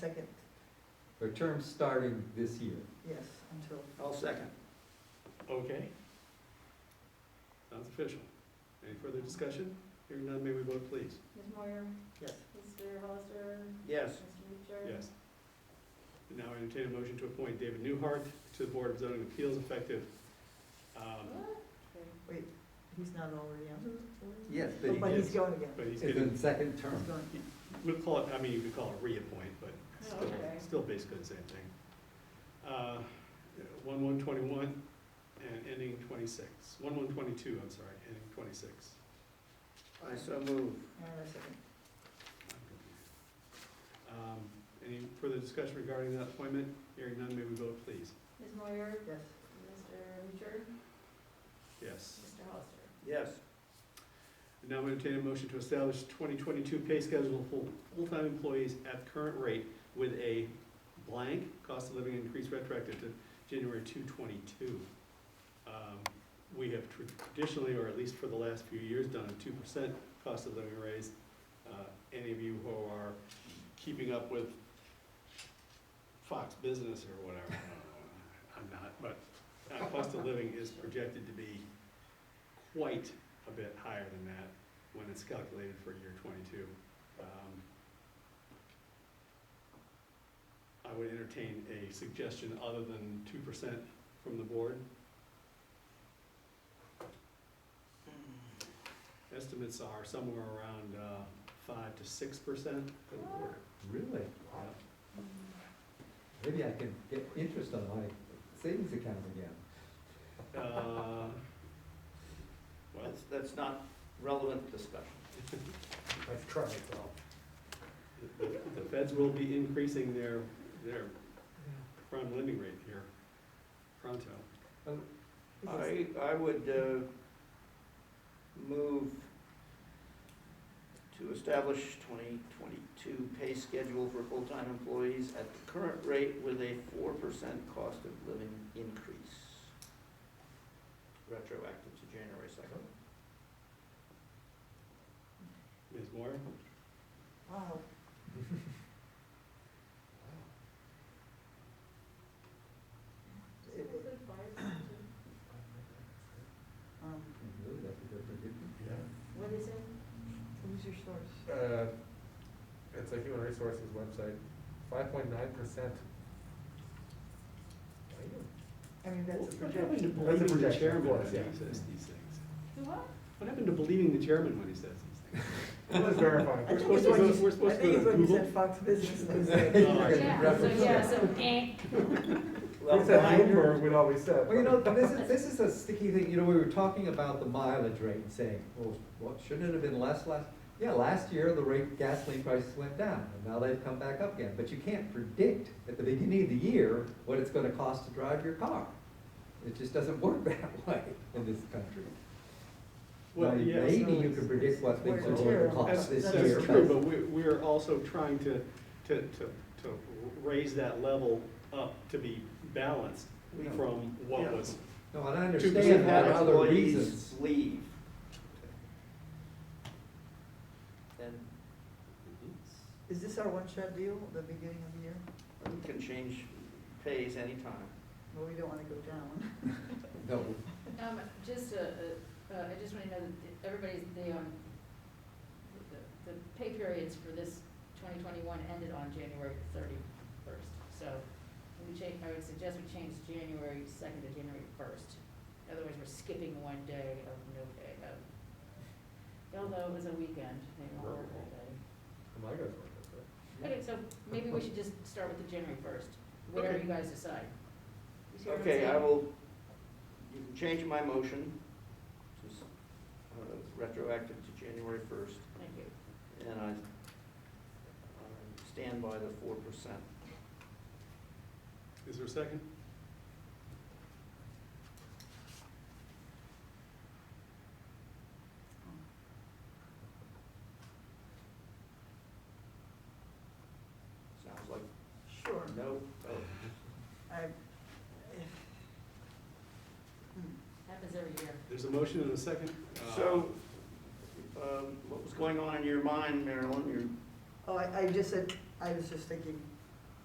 Second, Her term starting this year. yes, until, I'll second. Okay. Sounds official. Any further discussion? Hearing none, may we vote please? Ms. Moyer, yes. Mr. Hollister, Yes, Mr. Richard. Yes. And Now I entertain a motion to appoint David Newhart to the Board of Zoning Appeals effective, um, Wait, he's not already Mm-hmm. on? Yes, Oh, But but he's going again. but he's it's in getting, the second He's term. going. we'll call it, I mean, you could call it reappoint, but it's Oh, still, okay. still basically the same thing. Uh, one one twenty-one and ending twenty-six. One one twenty-two, I'm sorry, ending twenty-six. I so move. And a second, Um, Any further discussion regarding that appointment? Hearing none, may we vote please? Ms. Moyer, yes. Mr. Richard, Yes. Mr. Hollister. Yes, Now I'm entertain a motion to establish 2022 pay schedule for full-time employees at current rate with a blank cost of living increase retroactive to January 222. We have tr- traditionally, or at least for the last few years, done a 2% cost of living raise. Uh, Any of you who are keeping up with Fox Business or whatever, I don't know, I'm not, but uh, cost of living is projected to be quite a bit higher than that when it's calculated for year twenty-two. Um, I would entertain a suggestion other than two percent from the board. Estimates are somewhere around, uh, five to six percent for the board. Really? Mm-hmm. Maybe I can get interest on my savings account again. Uh, Well, that's, that's not relevant discussion. I've tried though. the the feds will be increasing their, their prime lending rate here pronto. Yes. I, I would uh, move to establish 2022 pay schedule for full-time employees at the current rate with a 4% cost of living increase. Retroactive to January 2nd. Ms. Moore? Wow, It- it- um, Really, that's a different difference. Yeah. What is it? who's your source? Uh, it's a human resources website, five point nine percent. I mean, that's a What happened to projection. That's a believing the projection, chairman of when he course, yeah. says these things? The what? What happened to believing the chairman when he says these things? It was verifying. I think We're it's supposed what to you, s- I think it's go- we're supposed to go to what you Google. said, Fox Business News. Well, You're gonna Yeah, so, reference yeah, that. so, eh. We said Bloomberg, we'd always said. Well, you know, this is, this is a sticky thing, you know, we were talking about the mileage rate and saying, well, what, shouldn't it have been less last? Yeah, last year, the rate gasoline prices went down, and now they've come back up again, but you can't predict at the beginning of the year what it's gonna cost to drive your car. It just doesn't work that way in this country. Now, Well, yes, maybe you can predict what things are going to that's, cost this That's year. that's true, but we're, we're also trying to, to, to, to raise that level up to be balanced from what Yeah. was. No, and I Two understand percent there had are other employees reasons. Leave. Then Is this our one-shot deal, the beginning of the year? we can change pays anytime. Well, we don't want to go down. No, Um, just, uh, uh, uh, I just want to know that everybody's, the, um, the- the pay periods for this twenty twenty-one ended on January thirty-first. So we change, I would suggest we change January second to January first. Otherwise, we're skipping one day of no pay, of, although it was a weekend, they don't work that day. My guys were Okay, so maybe we should just start with the January first, whatever Okay. you guys decide. You see what I'm Okay, I saying? will, you can change my motion to, s- uh, retroactive to January first, Thank you. and I I stand by the four percent. Is there a second? Sounds like Sure. no vote. I, Hmm. Happens every year. There's a motion and a second. Uh, So, um, what was going on in your mind, Marilyn? You're, Oh, I, I just said, I was just thinking,